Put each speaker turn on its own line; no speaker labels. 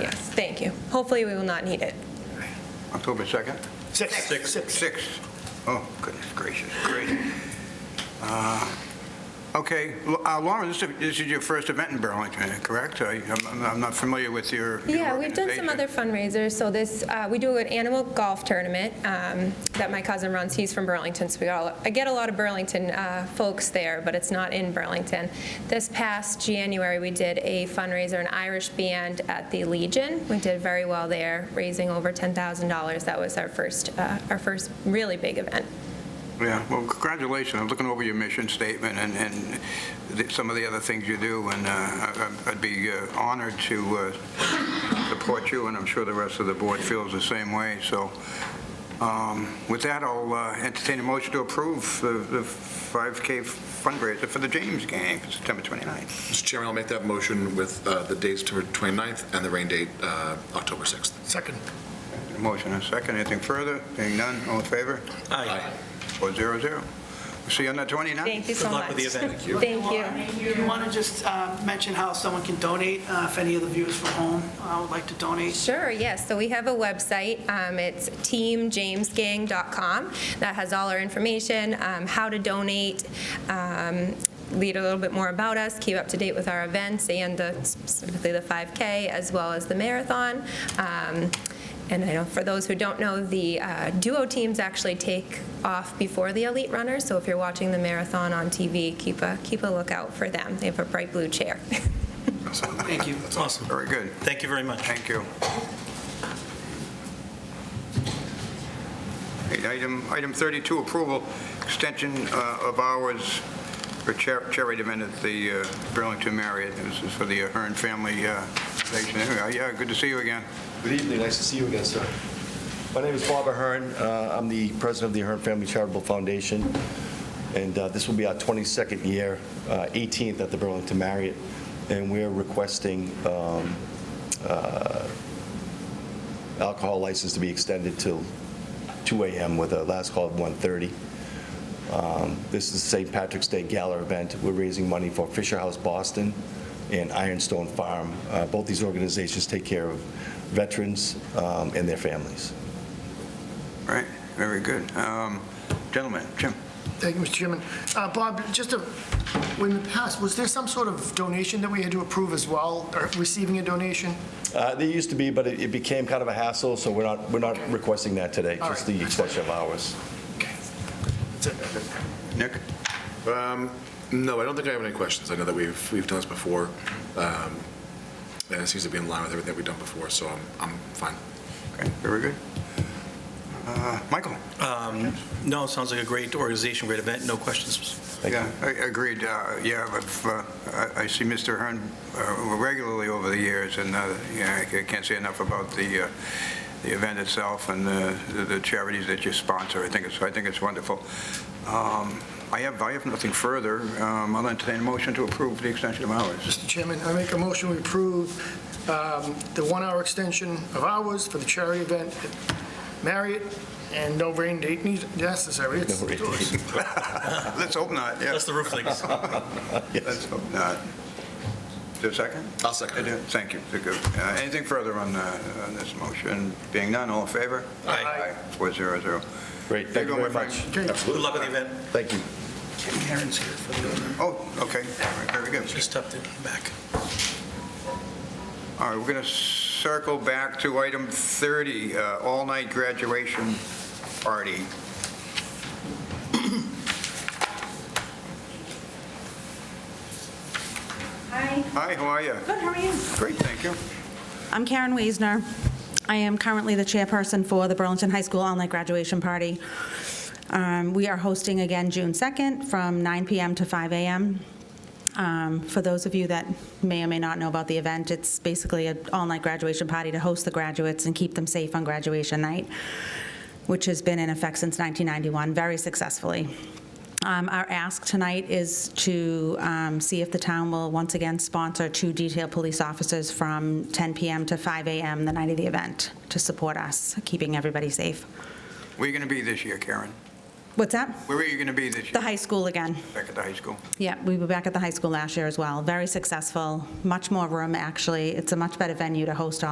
Yes, thank you. Hopefully, we will not need it.
October 2nd?
Six. Six.
6th. Oh, goodness gracious, great. Uh, Okay, L- uh, Lauren, this is this is your first event in Burlington, correct? I- I'm I'm- I'm not familiar with your your
Yeah, we've done some
organization.
other fundraisers, so this, uh, we do an animal golf tournament um, that my cousin runs, he's from Burlington, so we all, I get a lot of Burlington uh, folks there, but it's not in Burlington. This past January, we did a fundraiser, an Irish band at the Legion. We did very well there, raising over $10,000. That was our first, uh, our first really big event.
Yeah, well, congratulations. I'm looking over your mission statement and, and the- some of the other things you do, and uh, I- I- I'd be uh, honored to uh, support you, and I'm sure the rest of the board feels the same way. So um, with that, I'll uh, entertain a motion to approve the the 5K fundraiser for the James game, September 29th.
Mr. Chairman, I'll make that motion with uh, the dates September 29th and the rain date uh, October 6th.
Second.
Motion and second. Anything further? Being none, all in favor?
Aye.
Four zero zero. See you on the 29th.
Thank you so
Good luck
much.
with the event. Thank
you. Thank you.
You want to just uh, mention how someone can donate, uh, if any of the viewers from home uh, would like to donate?
Sure, yes. So we have a website. Um, It's teamjamesgang.com. That has all our information, um, how to donate, um, read a little bit more about us, keep up to date with our events and the- specifically the 5K as well as the marathon. Um, And I know for those who don't know, the uh, duo teams actually take off before the elite runners. So if you're watching the marathon on TV, keep a, keep a lookout for them. They have a bright blue chair.
Thank you.
Awesome.
Very good.
Thank you very much.
Thank you. Okay, Item, item 32, approval, extension uh, of hours for Cher- charity event at the uh, Burlington Marriott. This is for the Hearn Family uh, Foundation. There we are. Yeah, good to see you again.
Good evening, nice to see you again, sir. My name is Bob Ahern, Uh, I'm the president of the Ahern Family Charitable Foundation, and uh, this will be our 22nd year, uh, 18th at the Burlington Marriott, and we're requesting um, uh, alcohol license to be extended till 2 AM with a last call at 1:30. Um, This is the St. Patrick's Day Gala event. We're raising money for Fisher House Boston and Ironstone Farm. Uh, Both these organizations take care of veterans um, and their families.
All Right, very good. Um, Gentlemen, Jim?
Thank you, Mr. Chairman. Uh, Bob, just a, when the past, was there some sort of donation that we had to approve as well, or receiving a donation?
Uh, They used to be, but it it became kind of a hassle, so we're not, we're not requesting that today,
All
just
right.
the extension of hours.
Nick?
Um, No, I don't think I have any questions. I know that we've, we've done this before, um, and it seems to be in line with everything that we've done before, so I'm, I'm fine.
Okay, very good. Uh, Michael?
Um, No, it sounds like a great organization, great event, no questions.
Thank you.
Yeah, I- agreed. Uh, Yeah, I've, uh, I I see Mr. Hearn uh, regularly over the years, and uh, yeah, I can't say enough about the uh, the event itself and uh, the the charities that you sponsor. I think it's, I think it's wonderful. Um, I have, I have nothing further. Um, I'll entertain a motion to approve the extension of hours.
Mr. Chairman, I make a motion we approve um, the one-hour extension of hours for the charity event at Marriott, and no rain date need- necessary. It's-
No rain date.
Let's hope not, yeah.
That's the roof leaks.
Let's hope not. Is there a second?
I'll second it.
Thank you. Good. Uh, Anything further on uh, on this motion? Being none, all in favor?
Aye.
Four zero zero.
Great,
There
thank
you go,
you very
my
much.
friend.
Okay.
Good luck with the event.
Thank you.
Karen's here for the,
Oh, okay, All right, very good.
she's up there in the back.
All right, we're going to circle back to item 30, uh, all-night graduation party.
Hi,
Hi, how are you?
good, how are you?
Great, thank you.
I'm Karen Wiesner. I am currently the chairperson for the Burlington High School All-Night Graduation Party. Um, We are hosting again June 2nd from 9 PM to 5 AM. Um, For those of you that may or may not know about the event, it's basically an all-night graduation party to host the graduates and keep them safe on graduation night, which has been in effect since 1991, very successfully. Um, Our ask tonight is to um, see if the town will once again sponsor two detailed police officers from 10 PM to 5 AM the night of the event to support us, keeping everybody safe.
Where are you going to be this year, Karen?
What's that?
Where are you going to be this year?
The high school again.
Back at the high school?
Yeah, we were back at the high school last year as well. Very successful, much more room, actually. It's a much better venue to host all